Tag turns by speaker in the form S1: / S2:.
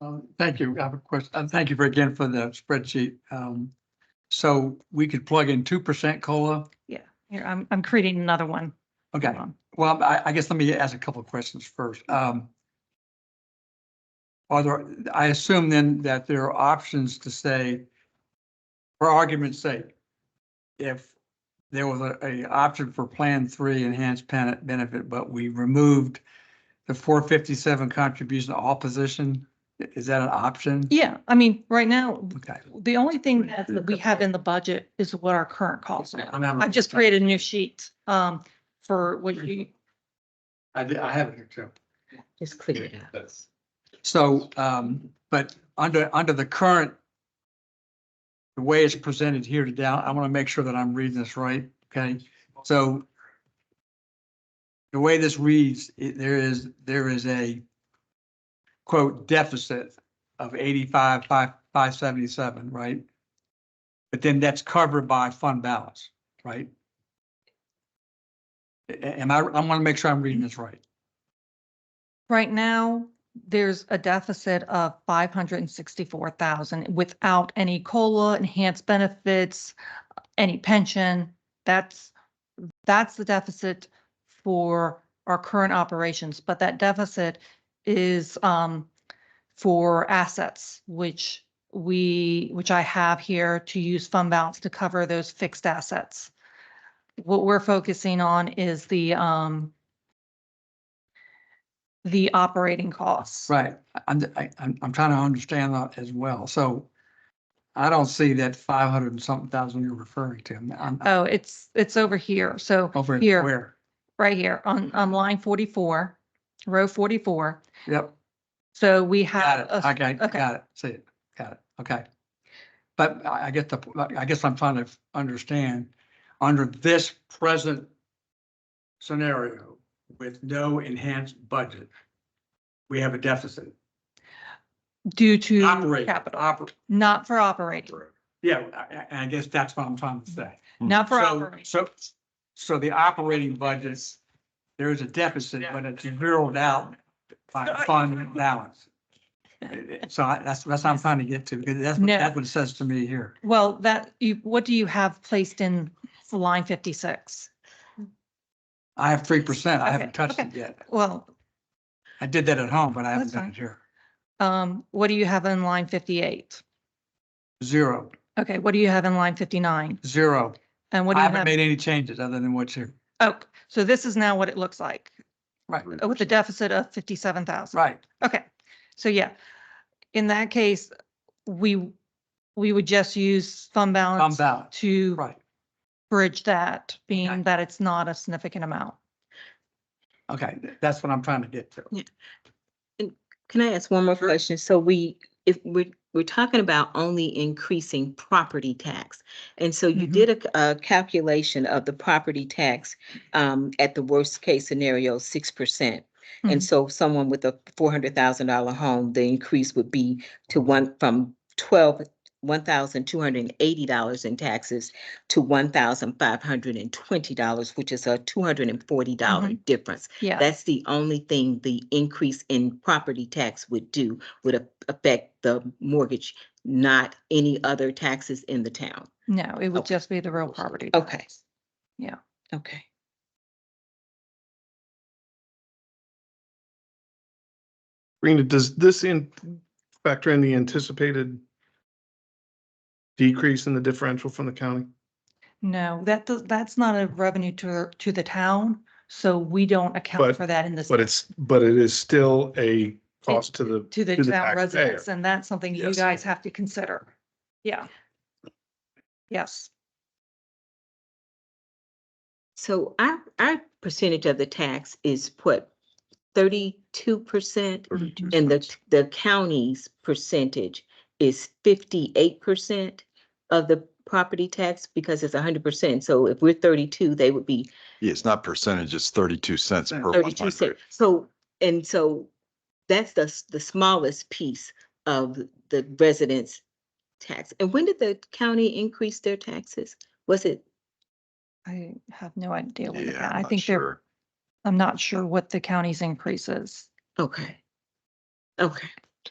S1: Um, Thank you. I have a question. Uh, Thank you for again for the spreadsheet. Um, so we could plug in two percent COLA.
S2: Yeah, here, I'm, I'm creating another one. Um,
S1: Okay,
S2: Hold on.
S1: well, I, I guess let me ask a couple of questions first. Um, are there, I assume then that there are options to say, for argument's sake, if there was a, a option for Plan Three enhanced pen- benefit, but we removed the four fifty-seven contribution to all position, i- is that an option?
S2: Yeah, I mean, right now,
S1: Okay.
S2: the only thing that we have in the budget is what our current costs are.
S1: I'm having-
S2: I've just created a new sheet, um, for what you,
S1: I, did- I have it here too.
S3: Just clear it up.
S1: So, um, but under, under the current, the way it's presented here to down, I want to make sure that I'm reading this right, okay? So the way this reads, it- there is, there is a quote deficit of eighty-five, five, five seventy-seven, right? But then that's covered by fund balance, right? A- a- Am I, I want to make sure I'm reading this right.
S2: right now, there's a deficit of five hundred and sixty-four thousand without any COLA, enhanced benefits, any pension. That's, that's the deficit for our current operations, but that deficit is, um, for assets, which we, which I have here to use fund balance to cover those fixed assets. What we're focusing on is the, um, the operating costs.
S1: Right, I- I'm, I, I'm, I'm trying to understand that as well, so I don't see that five hundred and something thousand you're referring to, I'm- I'm
S2: Oh, it's, it's over here. So
S1: over at
S2: here.
S1: where?
S2: right here on, on line forty-four, row forty-four.
S1: Yep,
S2: So we
S1: got
S2: have,
S1: it,
S2: a-
S1: okay,
S2: Uh, okay.
S1: got it, see it, got it, okay. But I, I get the, I guess I'm trying to understand, under this present scenario with no enhanced budget, we have a deficit.
S2: due to
S1: Operating,
S2: Mm, capital,
S1: oper-
S2: not for operating,
S1: Yeah, I- I, I guess that's what I'm trying to say.
S2: not for
S1: Mm, So,
S2: operating.
S1: so, so the operating budgets, there is a deficit, but it's zeroed out by fund balance. So I- that's, that's what I'm trying to get to, because that's, what-
S2: No.
S1: that's what it says to me here.
S2: Well, that, you, what do you have placed in line fifty-six?
S1: I have three percent. I haven't
S2: Okay,
S1: touched it
S2: okay.
S1: yet.
S2: Well,
S1: I did that at home, but I haven't
S2: That's
S1: done
S2: fine.
S1: it here.
S2: um, what do you have in line fifty-eight?
S1: Zero,
S2: Okay, what do you have in line fifty-nine?
S1: zero.
S2: And what do
S1: I
S2: you
S1: haven't
S2: have?
S1: made any changes other than what's here.
S2: Oh, so this is now what it looks like
S1: Right,
S2: with a deficit of fifty-seven thousand.
S1: right.
S2: Okay, so yeah, in that case, we, we would just use
S1: Fund
S2: fund balance
S1: balance,
S2: to
S1: right.
S2: bridge that,
S1: Okay.
S2: being that it's not a significant amount.
S1: Okay, that's what I'm trying to get to.
S3: Can I ask one more
S1: Sure.
S3: question? So we, if we're, we're talking about only increasing property tax. And so you
S2: Mhm.
S3: did a c- a, calculation of the property tax um, at the worst case scenario, six percent.
S2: Mhm.
S3: And so someone with a four hundred thousand dollar home, the increase would be to one, from twelve, one thousand two hundred and eighty dollars in taxes to one thousand five hundred and twenty dollars, which is a two hundred and forty dollar difference.
S2: Yeah,
S3: That's the only thing the increase in property tax would do, would a- affect the mortgage, not any other taxes in the town.
S2: no, it would
S3: Okay.
S2: just be the real property.
S3: Okay.
S2: tax. Yeah.
S3: Okay.
S4: Rena, does this in, factor in the anticipated decrease in the differential from the county?
S2: No, that, does- that's not a revenue to, to the town, so we don't account
S4: But-
S2: for that in this.
S4: But it's, but it is still a cost to the,
S2: To the
S4: to the
S2: town
S4: taxpayer.
S2: residents, and that's something you
S4: Yes.
S2: guys have to consider. Yeah. Yes,
S3: So our, our percentage of the tax is what, thirty-two percent?
S2: Mm-hmm.
S3: And the, the county's percentage is fifty-eight percent of the property tax because it's hundred percent. So if we're thirty-two, they would be
S5: Yeah, it's not percentage, it's thirty-two cents per one
S3: Thirty-two
S5: hundred.
S3: cents. So, and so that's the, s- the smallest piece of the residents' tax. And when did the county increase their taxes? Was it,
S2: I have no idea. when the
S5: Yeah,
S2: ca-
S5: I'm
S2: I
S5: not
S2: think they're,
S5: sure.
S2: I'm not sure what the county's increase is.
S3: okay. Okay,